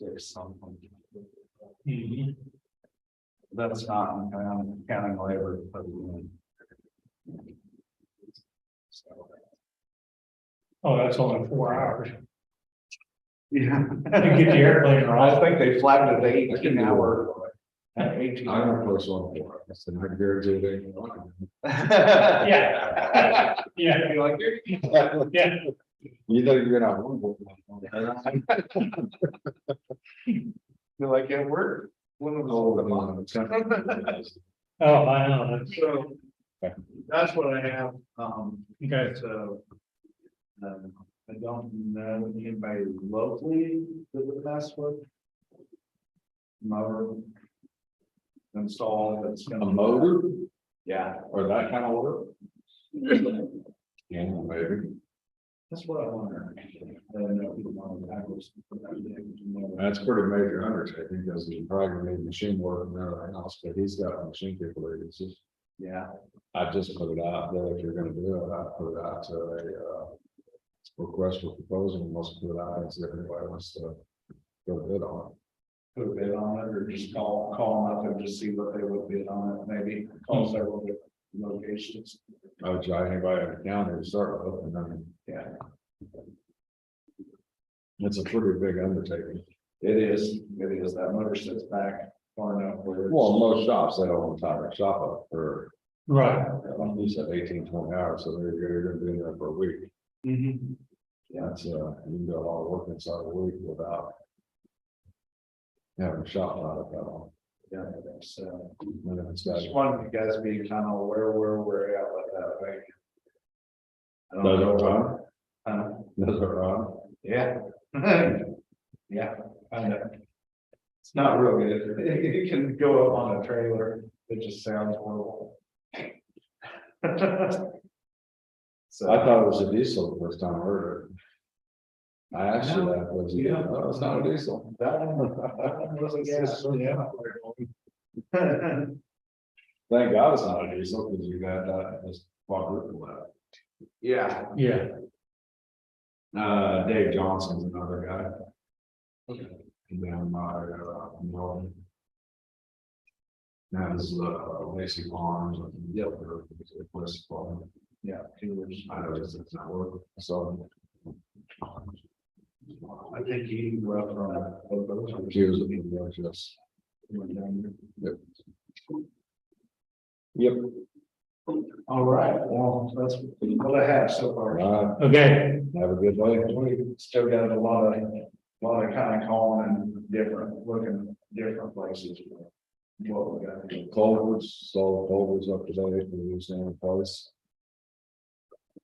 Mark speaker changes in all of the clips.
Speaker 1: There's something. That's not, I'm counting- counting labor. but, um, so,
Speaker 2: Oh, that's only four hours.
Speaker 1: Yeah.
Speaker 2: You get the airplane
Speaker 1: I
Speaker 2: right.
Speaker 1: think they flattened it to eighteen hour.
Speaker 3: I
Speaker 1: Eighteen.
Speaker 3: don't post on board, that's the night there, do they?
Speaker 2: Yeah. Yeah,
Speaker 1: Be like, "You're-
Speaker 2: yeah.
Speaker 3: You know, you're not one. board.
Speaker 1: Be like, yeah, we're. One of
Speaker 3: Oh,
Speaker 1: those.
Speaker 3: come on.
Speaker 2: Oh, I know. That's-
Speaker 1: So. That's what I have, um,
Speaker 2: Okay.
Speaker 1: so. um, I don't know anybody locally that would pass one. Mower. Installed, that's
Speaker 3: A
Speaker 1: gonna.
Speaker 3: motor
Speaker 1: Yeah,
Speaker 3: or that kind of work? Yeah, maybe.
Speaker 1: that's what I wonder. I don't know if people want to backwards, but I think you know.
Speaker 3: That's pretty major undertaking because he probably need machine work and everything else, but he's got machine capabilities.
Speaker 1: Yeah,
Speaker 3: I just put it out there if you're gonna do it, I put it out to a uh. Request for proposal, and most put it out as if anybody wants to. Go bid on.
Speaker 1: put a bid on it or just call, call them up and just see what they would bid on it, maybe on several different locations.
Speaker 3: it. Hmm. I would try anybody in the county to start with, and then
Speaker 1: Yeah,
Speaker 3: it's a pretty big undertaking.
Speaker 1: it is, it is, that motor sits back far enough where. it's-
Speaker 3: Well, most shops, they don't want to tie their shop up for,
Speaker 2: Right.
Speaker 3: like you said, eighteen, twenty hours, so they're, they're gonna be in there for a week.
Speaker 1: Mhm.
Speaker 3: That's, uh, you can do a lot of work inside a week without. Having a shop lot of that all.
Speaker 1: Yeah, so
Speaker 3: And then it's got-
Speaker 1: just wanted you guys to be kind of aware where we're at with that, right? I don't
Speaker 3: Does it
Speaker 1: know.
Speaker 3: run?
Speaker 1: Um, Uh,
Speaker 3: Does it run?
Speaker 1: Yeah. Yeah, I know. It's not real good. It can go up on a trailer. It just sounds horrible. So.
Speaker 3: I thought it was a diesel the first time I heard it. I asked you that, was it,
Speaker 1: Yeah.
Speaker 3: no, it's not a diesel.
Speaker 1: That one, that one was a gas. yeah.
Speaker 3: Thank God it's not a diesel, because you got that, it's quadruple that.
Speaker 1: Yeah.
Speaker 2: Yeah.
Speaker 3: Uh, Dave Johnson's another guy. Okay. And then my, uh, Norman. That is, uh, Lacy Farms, yeah, or West Farm,
Speaker 1: Yeah. he was-
Speaker 3: I know it's, it's not working, so.
Speaker 1: I think he uh, wrote on a.
Speaker 3: She was looking for just, yep. Yep,
Speaker 1: All right, well, that's what I have so
Speaker 3: all
Speaker 1: far.
Speaker 3: right,
Speaker 2: Okay.
Speaker 3: have a good day.
Speaker 1: We still got a lot of, lot of kind of calling and different, looking different places. What we got to do.
Speaker 3: Culverts, so culverts up today, we're using in place.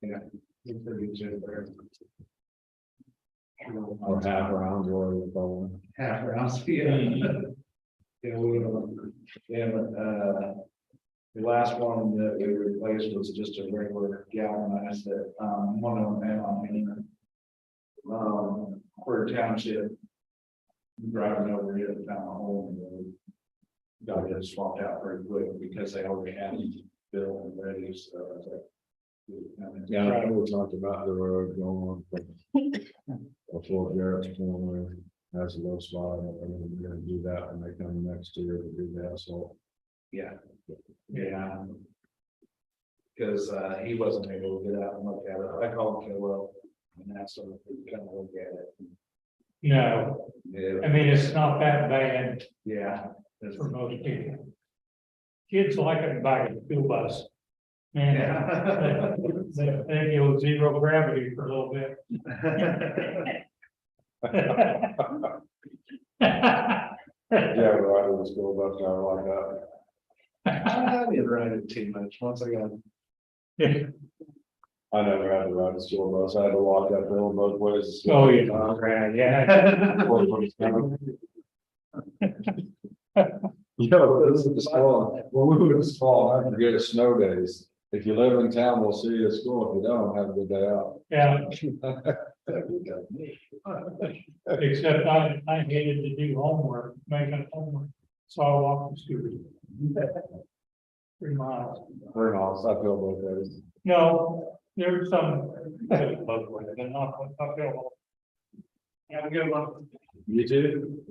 Speaker 1: It's pretty good there.
Speaker 3: Or half around or going.
Speaker 1: Half rounds, yeah. Yeah, we, um, yeah, but, uh, the last one that we replaced was just a regular galvanized that, um, one of them had on me. Um, Quarter Township. Driving over here, found a hole and they got it swapped out pretty quick because they already had it built and ready, so I was like.
Speaker 3: Yeah, I know we talked about the road going on. Before Garrett's corner has a low spot, and we're gonna do that when they come next year to do that, so.
Speaker 1: Yeah. Yeah. Cause uh, he wasn't able to get out and look at it. I called him, well, and asked him if he could come look at it.
Speaker 2: No,
Speaker 1: Yeah,
Speaker 2: I mean, it's not that bad
Speaker 1: yeah. it's-
Speaker 2: for most people. Kids like it by a school bus. Man,
Speaker 1: Yeah.
Speaker 2: they, they they go zero gravity for a little bit.
Speaker 3: Yeah, right, it was still about there like that.
Speaker 1: I didn't ride it too much. Once I got,
Speaker 3: I never had to ride a school bus, I had to walk that hill both ways.
Speaker 2: Oh, yeah, right, yeah.
Speaker 3: Yo, this is the small, well, we were small, I forget it's snow days. If you live in town, we'll see you at school. If you don't, have a good day out.
Speaker 2: Yeah,
Speaker 1: Yeah.
Speaker 2: except I, I hated to do homework, making homework, so I walked the scooter. Three miles.
Speaker 3: Very nice, I feel both ways.
Speaker 2: No, there's some, there's both ways, but not, not Have a good one.
Speaker 3: You too?